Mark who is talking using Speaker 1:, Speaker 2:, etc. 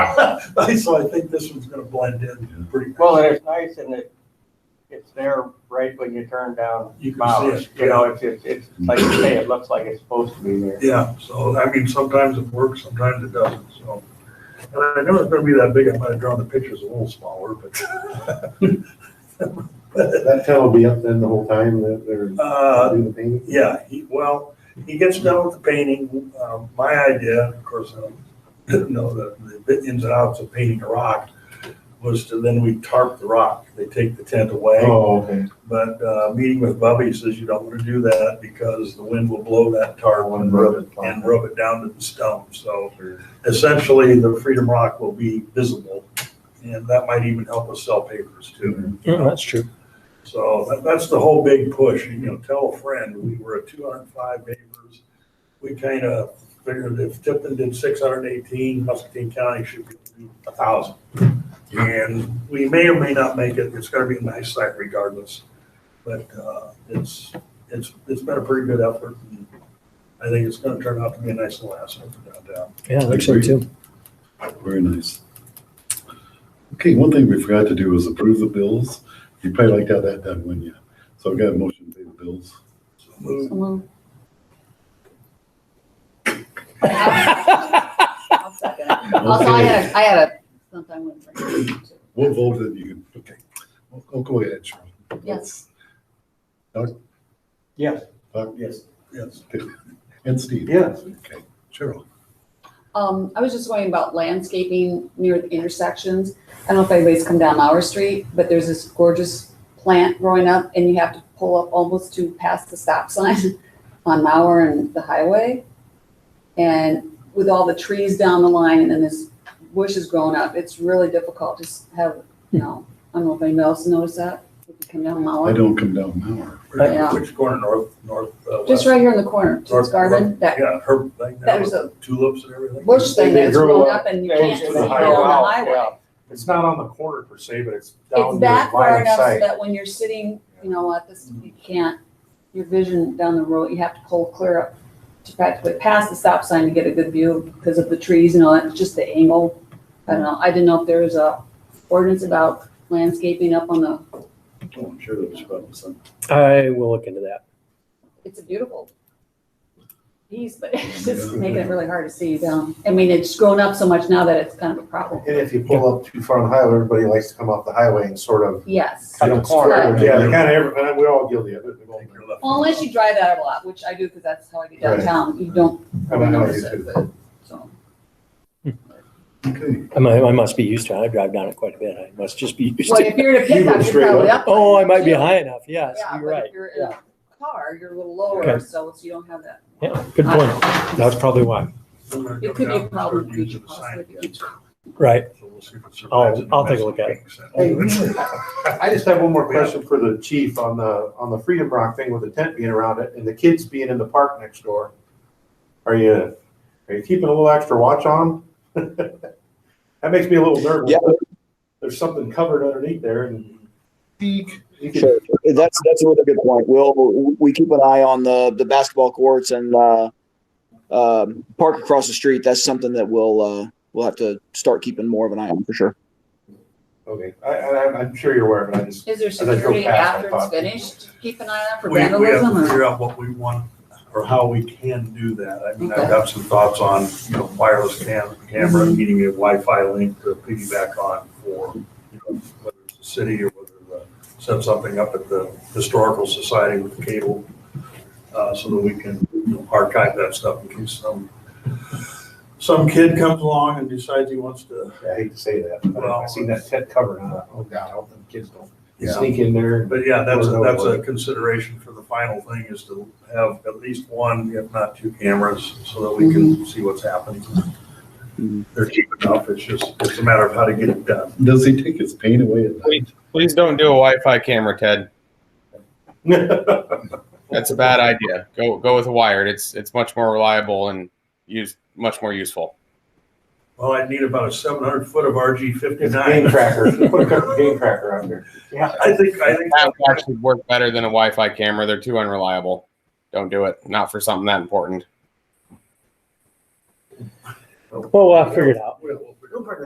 Speaker 1: So I think this one's gonna blend in pretty
Speaker 2: Well,
Speaker 1: well.
Speaker 2: and it's nice and it, it's there right when you turn down
Speaker 1: You can
Speaker 2: Bowers.
Speaker 1: see
Speaker 2: You
Speaker 1: it,
Speaker 2: know, it's, it's, it's like you say, it looks like it's supposed to be there.
Speaker 1: yeah, so I mean, sometimes it works, sometimes it doesn't, so. And I know it's gonna be that big, I might have drawn the pictures a little smaller, but.
Speaker 3: That town will be up then the whole time that they're
Speaker 1: Uh,
Speaker 3: doing the painting?
Speaker 1: Yeah, he, well, he gets done with the painting. Um, my idea, of course, I didn't know the, the ins and outs of painting a rock, was to then we tarp the rock. They take the tent away.
Speaker 3: Oh, okay.
Speaker 1: But, uh, meeting with Bubby, he says you don't want to do that because the wind will blow that tarp and rub it, and rub it down to the stone. So essentially, the Freedom Rock will be visible. And that might even help us sell papers too.
Speaker 4: Yeah, that's true.
Speaker 1: So that, that's the whole big push, you know, tell a friend, we were at two hundred and five neighbors. We kind of figured if Tipton did six hundred and eighteen, Muscatine County should be a thousand.
Speaker 4: Hmm.
Speaker 1: And we may or may not make it, it's gonna be a nice site regardless. But, uh, it's, it's, it's been a pretty good effort. and I think it's gonna turn out to be a nice little asset for downtown.
Speaker 4: Yeah, I think so too.
Speaker 5: Very nice. Okay, one thing we forgot to do is approve the bills. You probably like to have that done, wouldn't you? So I've got a motion to pay the bills.
Speaker 1: So move.
Speaker 6: I'll second it. Also, I had, a I had a, something I wouldn't bring it to.
Speaker 5: We'll vote it, you, okay. I'll- I'll go ahead, Cheryl.
Speaker 6: Yes.
Speaker 2: Yes.
Speaker 5: Doc?
Speaker 2: Yes.
Speaker 1: Yes,
Speaker 5: And Steve?
Speaker 2: Yes.
Speaker 5: Okay, Cheryl,
Speaker 6: Um, I was just going about landscaping near the intersections. I don't know if anybody's come down our street, but there's this gorgeous plant growing up and you have to pull up almost to past the stop sign on Mauer and the highway. And with all the trees down the line and then this bush is growing up, it's really difficult to s- have, you know, I don't know if anybody else noticed that. If you come down
Speaker 5: I
Speaker 6: Mauer,
Speaker 5: don't come down an hour.
Speaker 6: Yeah.
Speaker 1: which corner, north, north, uh, west?
Speaker 6: just right here in the corner, Toots
Speaker 1: North-
Speaker 6: Garden,
Speaker 1: north-
Speaker 6: that
Speaker 1: Yeah, herb thing, there
Speaker 6: That
Speaker 1: with
Speaker 6: was a
Speaker 1: the tulips and everything.
Speaker 6: bush thing
Speaker 2: They
Speaker 6: that's
Speaker 2: grew
Speaker 6: grown
Speaker 2: up
Speaker 6: up and you
Speaker 2: Things
Speaker 6: can't see
Speaker 2: to
Speaker 6: it
Speaker 2: the
Speaker 6: on the
Speaker 2: highway.
Speaker 6: highway.
Speaker 2: Yeah.
Speaker 7: It's not on the corner per se, but it's down
Speaker 6: It's
Speaker 7: the
Speaker 6: back far
Speaker 7: line of
Speaker 6: enough so
Speaker 7: sight.
Speaker 6: that when you're sitting, you know, at this, you can't, your vision down the road, you have to pull clear up to practically pass the stop sign to get a good view because of the trees and all that, It's just the angle. I don't know, I didn't know if there was a ordinance about landscaping up on the,
Speaker 5: Oh, I'm sure that was probably something.
Speaker 4: I will look into that.
Speaker 6: it's a beautiful piece, but it's just making it really hard to see down. I mean, it's grown up so much now that it's kind of a problem.
Speaker 3: And if you pull up too far on the highway, everybody likes to come off the highway and sort of.
Speaker 6: Yes.
Speaker 2: Cut the corner.
Speaker 3: Yeah, they kind of, and we're all guilty of it. we all-
Speaker 6: Well, unless you drive that a lot, which I do because that's how I get
Speaker 3: Right.
Speaker 6: downtown. You don't
Speaker 3: I
Speaker 6: really
Speaker 3: don't know,
Speaker 6: notice
Speaker 3: you
Speaker 6: it,
Speaker 3: too.
Speaker 6: but, so.
Speaker 5: Okay,
Speaker 4: I might, I must be used to it. I drive down it quite a bit. I must just be used
Speaker 6: Well,
Speaker 4: to it.
Speaker 6: if you're in a
Speaker 3: You go
Speaker 6: pickup, you're
Speaker 3: straight
Speaker 6: probably up.
Speaker 4: Oh, I might be
Speaker 6: Yeah,
Speaker 4: high enough. Yes, you're
Speaker 6: but
Speaker 4: right.
Speaker 6: if you're in a car, you're a little lower,
Speaker 4: Okay.
Speaker 6: so you don't have that. Uh,
Speaker 4: Yeah, good point. That's probably why.
Speaker 6: It could be a problem for you to possibly get.
Speaker 4: Right.
Speaker 1: So we'll see if it
Speaker 4: I'll-
Speaker 1: survives
Speaker 4: Oh, I'll take a look at
Speaker 1: it.
Speaker 3: Hey, I just have one more question for the chief on the, on the Freedom Rock thing with the tent being around it and the kids being in the park next door. Are you, are you keeping a little extra watch on? 'em? That makes me a little nervous.
Speaker 8: Yeah.
Speaker 3: There's something covered underneath there and you could
Speaker 8: Sure, that's that's a really good point. We'll we keep an eye on the the basketball courts and uh, um park across the street. That's something that we'll uh, we'll have to start keeping more of an eye on for sure.
Speaker 3: Okay, I, I, I'm sure you're aware, but I just,
Speaker 6: Is there
Speaker 3: I drove
Speaker 6: security
Speaker 3: past, I
Speaker 6: after it's
Speaker 3: thought-
Speaker 6: finished? Keep an eye out for
Speaker 1: We, we have
Speaker 6: vandalism
Speaker 1: to
Speaker 6: or?
Speaker 1: figure out what we want or how we can do that. I mean, I've
Speaker 6: Okay. Mm-hmm.
Speaker 1: got some thoughts on, you know, wireless cam, camera, needing a Wi-Fi link to piggyback on for, you know, whether it's the city or whether, uh, set something up at the Historical Society with the cable, uh, so that we can you know, archive that stuff in case some, some kid comes along and decides he wants to,
Speaker 3: I hate to say that, but I seen that tent covered and I thought, oh God, I hope them kids don't
Speaker 1: Yeah.
Speaker 3: sneak in there.
Speaker 1: But yeah, that's, a- that's a consideration for the final thing is to have at least one, if not two cameras, so that we
Speaker 3: Mm-hmm.
Speaker 1: can see what's happening.
Speaker 8: Mhm.
Speaker 1: They're cheap enough, it's just, it's a matter of how to get it done.
Speaker 5: does he take his pain away at night?
Speaker 9: Please don't do a Wi-Fi camera, Ted. That's a bad idea. Go go with a wired. It's it's much more reliable and used much more useful.
Speaker 1: Well, I'd need about a seven hundred foot of RG
Speaker 3: It's a game
Speaker 1: fifty-nine.
Speaker 3: tracker, put a couple game tracker out there.
Speaker 1: I think, I think,
Speaker 9: That would actually work better than a Wi-Fi camera. They're too unreliable. Don't do it. Not for something that important.
Speaker 4: Well, I'll figure it out.
Speaker 1: We'll- we'll-